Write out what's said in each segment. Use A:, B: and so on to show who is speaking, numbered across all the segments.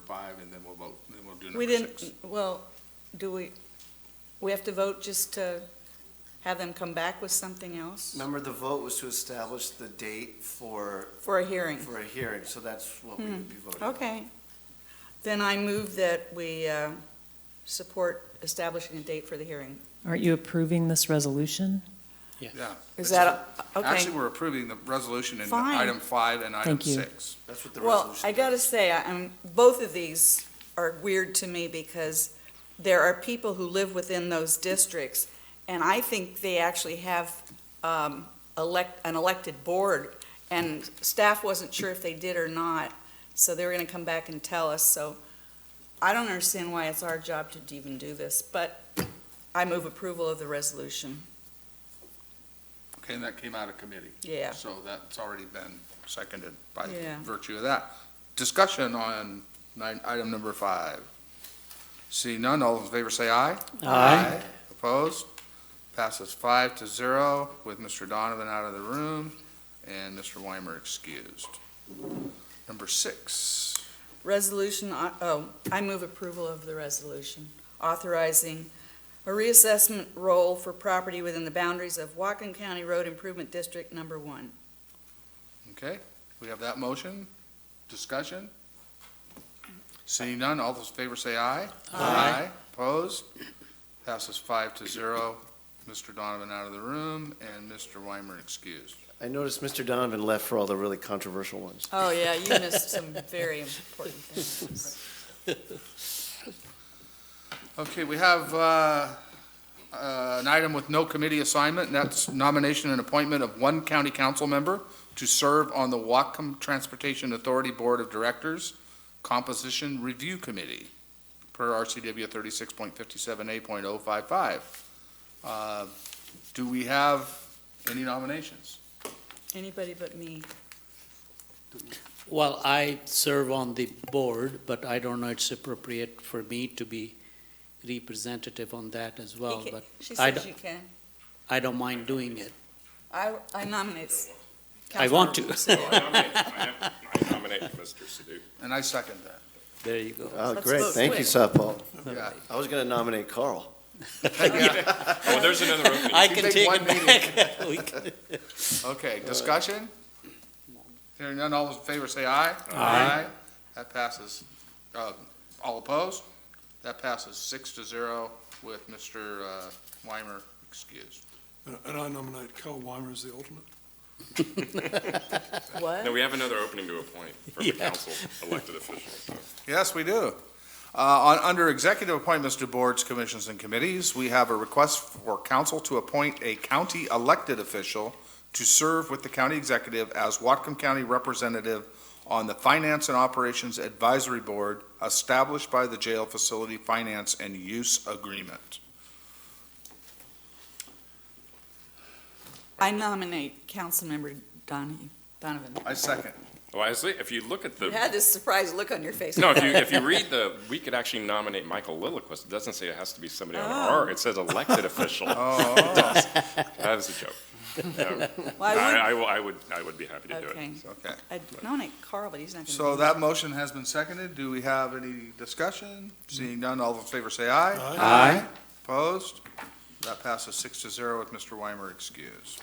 A: five, and then we'll vote, then we'll do
B: We
A: number six.
B: didn't, well, do we, we have to vote just to have them come back with something else
C: Remember, the vote was to establish the date for,
B: for a hearing?
C: for a hearing, so that's what we would be voting on.
B: Okay. Then I move that we uh, support establishing a date for the hearing.
D: Aren't you approving this resolution?
A: Yeah.
B: Is that, a- okay.
A: Actually, we're approving the resolution in
B: Fine.
A: item five and item
D: Thank you.
A: six.
C: That's what the
B: Well,
C: resolution.
B: I gotta say, I- I'm, both of these are weird to me because there are people who live within those districts, and I think they actually have um, elect, an elected board, and staff wasn't sure if they did or not, so they were gonna come back and tell us, so I don't understand why it's our job to even do this, but I move approval of the resolution.
A: Okay, and that came out of committee.
B: Yeah.
A: So that's already been seconded by
B: Yeah.
A: virtue of that. Discussion on nine, item number five. See none, all those in favor say aye. Aye. Opposed? Passes five to zero with Mr. Donovan out of the room and Mr. Weimer excused. Number six.
B: Resolution, uh, oh, I move approval of the resolution authorizing a reassessment role for property within the boundaries of Whatcom County Road Improvement District Number One.
A: Okay, we have that motion. Discussion? Seeing none, all those in favor say aye. Aye. Opposed? Passes five to zero. Mr. Donovan out of the room and Mr. Weimer excused.
C: I noticed Mr. Donovan left for all the really controversial ones.
B: Oh, yeah, you missed some very important things.
A: Okay, we have uh, uh, an item with no committee assignment, and that's nomination and appointment of one county council member to serve on the Wacom Transportation Authority Board of Directors Composition Review Committee, per RCW 36.57A.055. Uh, Do we have any nominations?
B: Anybody but me.
E: Well, I serve on the board, but I don't know it's appropriate for me to be representative on that as well,
B: You ca-
E: but
B: She
E: I
B: says
E: don't-
B: you can.
E: I don't mind doing it.
B: I, I nominate. s-
E: I want to.
B: Councilmember Sidoti.
F: I nominate Mr. Sadoo.
A: And I second that.
E: There you go.
A: Uh,
C: Oh,
B: Let's
C: great,
B: vote
C: thank you, Southpaw.
A: Yeah.
C: I was gonna nominate Carl.
F: Oh, there's another opening.
E: I
A: can
E: can
A: take
E: take
A: one
E: it back. We can-
A: Okay, discussion? Hearing none, all those in favor say aye. Aye. That passes. Uh, All opposed? That passes six to zero with Mr. uh, Weimer excused.
G: And and I nominate Carl Weimer as the alternate.
F: No,
B: What?
F: we have another opening to appoint from the
E: Yeah.
F: council elected officials.
A: Yes, we do. Uh, on- Under executive appointments to boards, commissions, and committees, we have a request for council to appoint a county elected official to serve with the county executive as Watcom County representative on the Finance and Operations Advisory Board established by the jail facility finance and use agreement.
B: I nominate Councilmember Donahue, Donovan.
A: I second.
F: Well, Oh, I see, if you look at
B: You
F: the,
B: had this surprised look on your face.
F: no, if you, if you read the, we could actually nominate Michael Lillquist. It doesn't say it has to be somebody on our, it says elected official.
A: Oh,
F: That is a joke.
B: Why
F: I,
B: would-
F: I will, I would, I would be happy to do
B: Okay.
F: it. so.
A: okay.
B: I nominate Carl, but he's not gonna.
A: So
B: be-
A: that motion has been seconded. Do we have any discussion? Seeing none, all in favor say aye.
G: Aye.
A: Aye. Opposed? That passes six to zero with Mr. Weimer excused.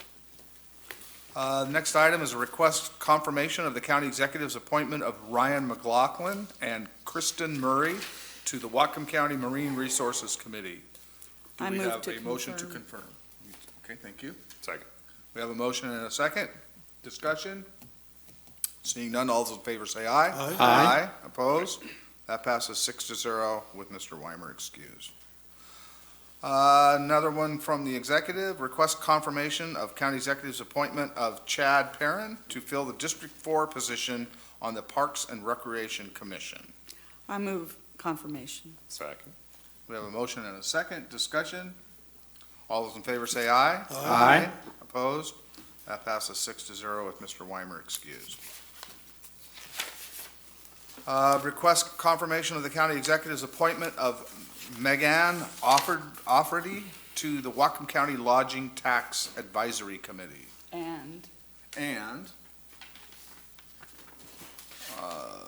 A: Uh, next item is a request confirmation of the county executive's appointment of Ryan McLaughlin and Kristen Murray to the Whatcom County Marine Resources Committee. Do
B: I
A: we
B: move
A: have
B: to
A: a motion to
B: confirm.
A: confirm? Okay, thank you.
F: Second.
A: We have a motion and a second. Discussion? Seeing none, all those in favor say aye.
G: Aye.
A: Aye. Opposed? That passes six to zero with Mr. Weimer excused. Uh, Another one from the executive, request confirmation of county executive's appointment of Chad Perrin to fill the District Four position on the Parks and Recreation Commission.
B: I move confirmation.
F: Second.
A: We have a motion and a second. Discussion? All those in favor say aye.
C: Aye.
A: Opposed? That passes six to zero with Mr. Weimer excused. Uh, Request confirmation of the county executive's appointment of Megan Offered Offerty to the Wacom County Lodging Tax Advisory Committee.
B: And
A: And uh,